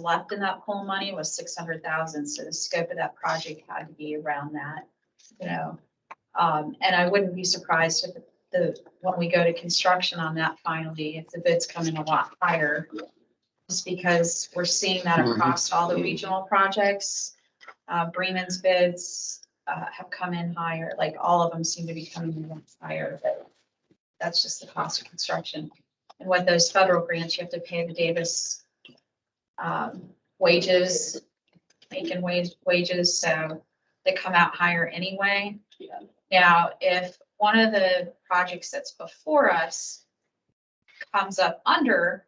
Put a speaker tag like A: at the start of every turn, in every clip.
A: left in that pool money was six hundred thousand, so the scope of that project had to be around that, you know. Um, and I wouldn't be surprised if the, when we go to construction on that finally, if the bids come in a lot higher. Just because we're seeing that
B: Mhm.
A: across all the regional projects, uh, Bremen's bids, uh, have come in higher, like all of them seem to be coming in higher, but that's just the cost of construction. And what those federal grants, you have to pay the Davis um, wages, making wage, wages, so they come out higher anyway.
C: Yeah.
A: Now, if one of the projects that's before us comes up under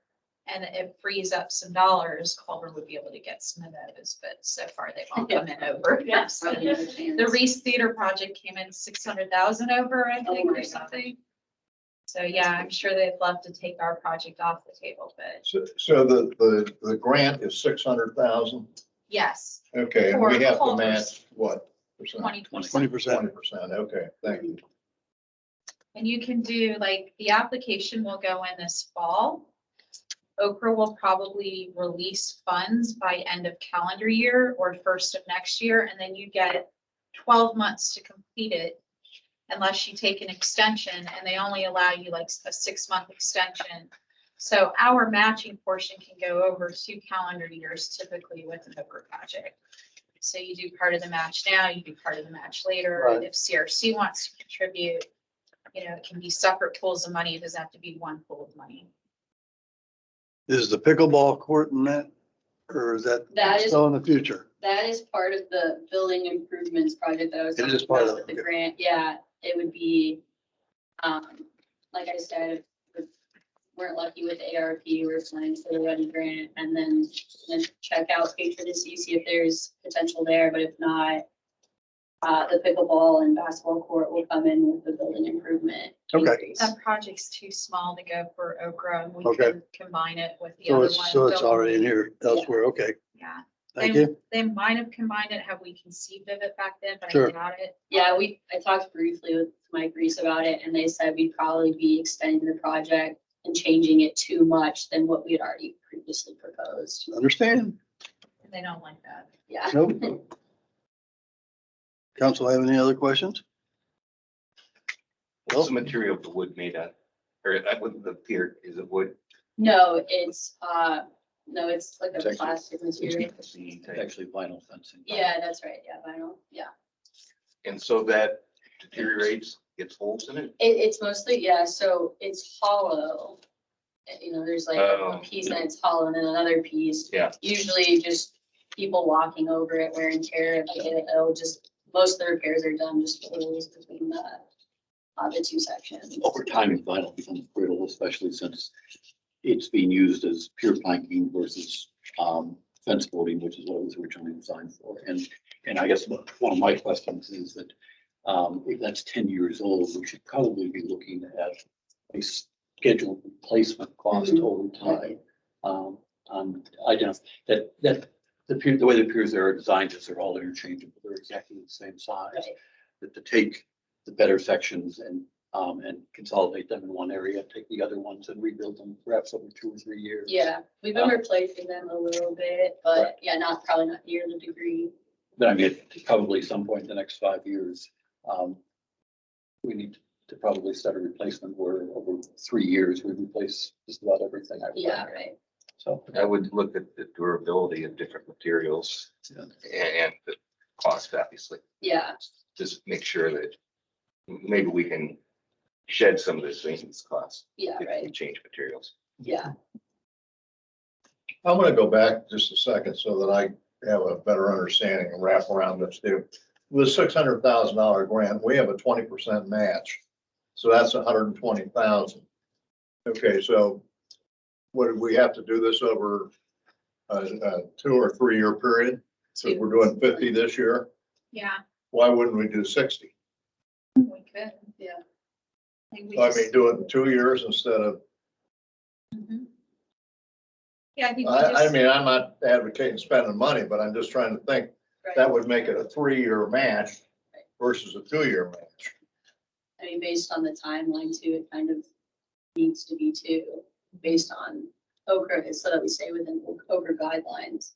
A: and it frees up some dollars, Culver would be able to get some of those, but so far they've all come in over.
C: Yes.
A: The Reese Theater project came in six hundred thousand over, I
C: Oh
A: think,
C: my
A: or
C: God.
A: something. So yeah, I'm sure they'd love to take our project off the table, but
B: So, so the, the, the grant is six hundred thousand,
A: yes,
B: okay, and
A: For
B: we have to
A: Culver's.
B: match what? percent?
A: twenty percent.
D: Twenty percent.
B: Twenty percent, okay, thank you.
A: And you can do, like, the application will go in this fall. Okra will probably release funds by end of calendar year or first of next year, and then you get twelve months to complete it unless you take an extension, and they only allow you like a six-month extension. So our matching portion can go over two calendar years typically with an Okra project. So you do part of the match now, you do part of the match later.
D: Right.
A: If CRC wants to contribute, you know, it can be separate pools of money. It doesn't have to be one pool of money.
D: Is the pickleball court in that, or is that
C: That is-
D: still in the future?
C: That is part of the building improvements project that I was.
D: It is
C: talking
D: part
C: about
D: of it,
C: with The
D: okay.
C: grant, yeah, it would be, um, like I said, if we're lucky with ARP, we're applying for the ready grant and then, then check out Patriot and see see if there's potential there, but if not, uh, the pickleball and basketball court will come in with the building improvement.
D: Okay.
C: increase.
A: That project's too small to go for Okra and we
D: Okay.
A: can combine it with the
D: So
A: other one.
D: it's, so it's
A: Don't-
D: already in here elsewhere. Okay,
A: Yeah,
D: thank
A: They-
D: you.
A: they might have combined it had we conceived of it back then, but I
D: Sure.
A: doubt it.
C: Yeah, we, I talked briefly with Mike Reese about it and they said we'd probably be extending the project and changing it too much than what we had already previously proposed.
D: Understand?
A: They don't like that.
C: Yeah.
D: Nope. Council have any other questions?
E: What's the material of the wood made out? Or I wouldn't, the pier is it wood?
C: No, it's, uh, no, it's like a
E: It's actually-
C: plastic material.
E: Actually vinyl fencing.
C: Yeah, that's right. Yeah, vinyl. Yeah.
E: And so that deteriorates, gets holes in it?
C: It, it's mostly, yeah, so it's hollow. Uh, You know, there's like a
E: Oh.
C: piece and it's hollow and then another piece.
E: Yeah.
C: Usually just people walking over it wear and tear, like, it- it'll just, most of the repairs are done just holes between the, uh, the two sections.
F: over time, vinyl becomes brittle, especially since it's being used as pure planking versus um, fence boarding, which is what it was originally designed for. And, and I guess one one of my questions is that um, if that's ten years old, we should probably be looking at a scheduled replacement cost over time. Um, on, I don't, that, that, the pier, the way the piers are designed is they're all interchangeable. They're exactly the same size.
C: Right.
F: That to take the better sections and um, and consolidate them in one area, take the other ones and rebuild them perhaps over two or three years.
C: Yeah, we've
E: Oh.
C: been replacing them a little bit, but yeah, not, probably not near the degree.
F: But I mean, probably some point in the next five years, um, we need to probably start a replacement where over three years, we replace just about everything. I would think.
C: Yeah, right.
F: So.
E: I would look at the durability of different materials
F: yeah.
E: and the cost, obviously.
C: Yeah,
E: Just make sure that maybe we can shed some of this maintenance cost
C: yeah,
E: if we
C: right.
E: change materials.
C: Yeah.
B: I'm gonna go back just a second so that I have a better understanding and wrap around this too. With six hundred thousand dollar grant, we have a twenty percent match, so that's $120,000. Okay, so what, do we have to do this over a, a two or three year period? So we're doing fifty this year,
A: Yeah,
B: why wouldn't we do sixty?
A: we could.
C: Yeah.
A: Like, we
B: I
A: just-
B: mean, do it in two years instead of
A: Mhm. Yeah, I think we
B: I, I
A: just,
B: mean, I'm not advocating spending money, but I'm just trying to think,
C: right.
B: that would make it a three-year match versus a two-year match.
C: I mean, based on the timeline too, it kind of needs to be too, based on Okra is so that we stay within Okra guidelines.